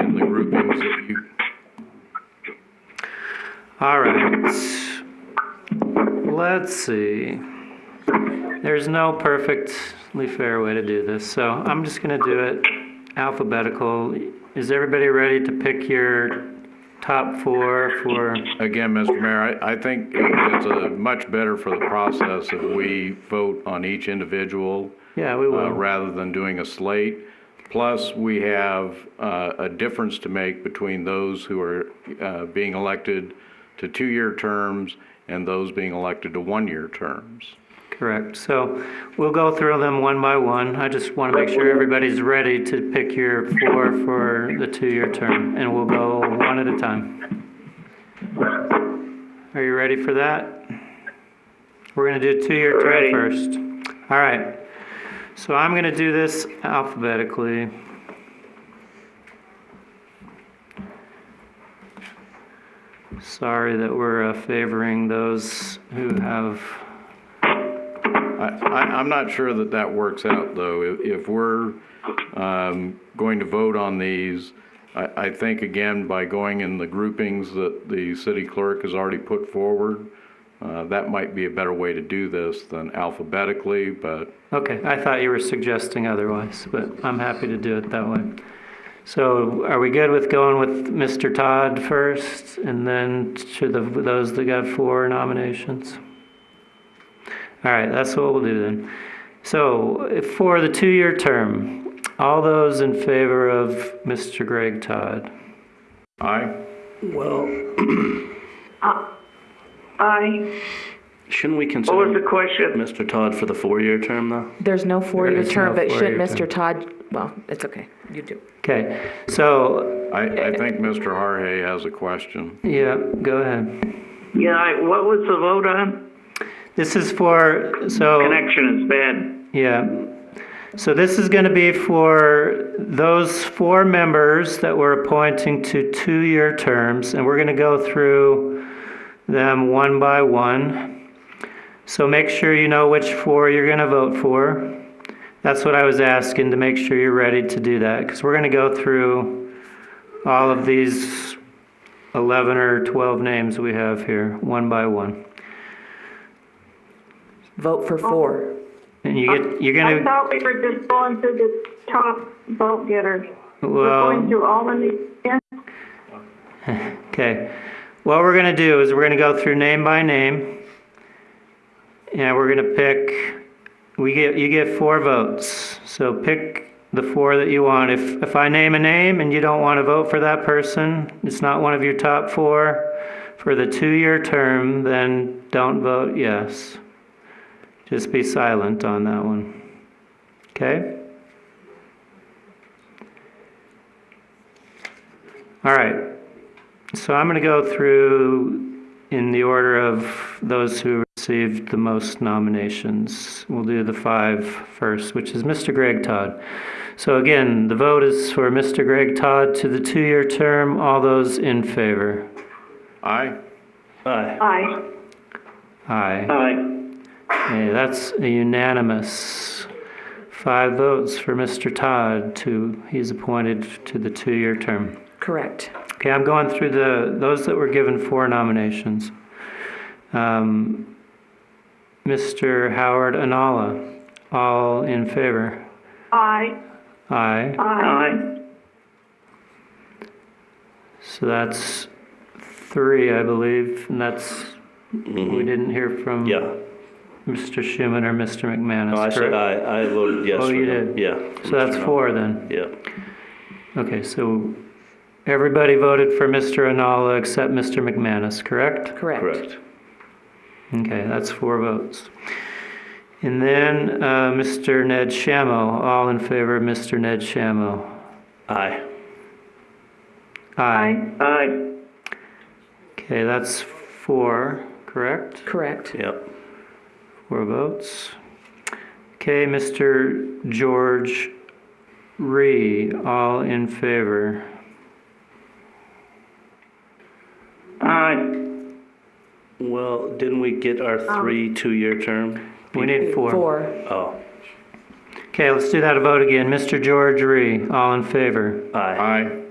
root means that you. All right. Let's see. There's no perfectly fair way to do this, so I'm just going to do it alphabetical. Is everybody ready to pick your top four for? Again, Mr. Mayor, I, I think it's a much better for the process if we vote on each individual Yeah, we uh, will. rather than doing a slate. Plus, we have uh, a difference to make between those who are uh, being elected to two-year terms and those being elected to one-year terms. Correct. So we'll go through them one by one. I just want to make sure everybody's ready to pick your four for the two-year term, and we'll go one at a time. Are you ready for that? We're going to do two-year term Ready. first. All right. So I'm going to do this alphabetically. Sorry that we're uh, favoring those who have I, I- I'm not sure that that works out, though. If- If we're um, going to vote on these, I I think, again, by going in the groupings that the city clerk has already put forward, uh, that might be a better way to do this than alphabetically, but Okay, I thought you were suggesting otherwise, but I'm happy to do it that way. So are we good with going with Mr. Todd first and then to the, those that got four nominations? All right, that's what we'll do then. So if- for the two-year term, all those in favor of Mr. Greg Todd? aye. Well, Aye. shouldn't we What was the consider question? Mr. Todd for the four-year term, though? Mm-hmm. There's no four-year is no term, but should four-year Mr. Todd, well, it's okay, you do. Okay, so, I I think Mr. Harhay has a question. yeah, go ahead. Yeah, I- what was the vote on? This is for, so. Connection is bad. Yeah. So this is going to be for those four members that we're appointing to two-year terms, and we're going to go through them one by one. So make sure you know which four you're going to vote for. That's what I was asking, to make sure you're ready to do that, because we're going to go through all of these 11 or 12 names we have here, one by one. Vote for four. And you get, you're going I to, thought we were just going through the top vote getters. We're well... going through all the new, yeah, Okay. What we're going to do is we're going to go through name by name. And we're going to pick we get you get four votes. So pick the four that you want. If if I name a name and you don't want to vote for that person, it's not one of your top 4 for the 2-year term, then don't vote yes. Just be silent on that one. Okay? All right. So I'm going to go through in the order of those who received the most nominations. We'll do the five first, which is Mr. Greg Todd. So again, the vote is for Mr. Greg Todd to the two-year term. All those in favor? Aye? Aye. aye. Aye. Aye. Okay, that's a unanimous. Five votes for Mr. Todd to, he's appointed to the two-year term. Correct. Okay, I'm going through the, those that were given four nominations. Um, Mr. Howard Anala, all in favor? Aye, Aye. aye, Aye. So that's three, I believe, and that's, we didn't hear from Mm-hmm. Yeah. Mr. Schuman or Mr. McManus, No, I said correct? aye. I voted yes. Oh, for you him. did. Yeah. So that's Mr. four then? Yeah. Okay, so everybody voted for Mr. Anala except Mr. McManus, correct? Correct. Correct. Okay, that's four votes. And then uh, Mr. Ned Shammo, all in favor of Mr. Ned Shammo? Aye. aye, Aye. Okay, that's four, correct? Correct. Yep. Four votes. Okay, Mr. George Ree, all in favor? Aye. Well, didn't we get our three two-year term? We need four. Four. Oh, Okay, let's do that a vote again. Mr. George Ree, all in favor? aye. Aye?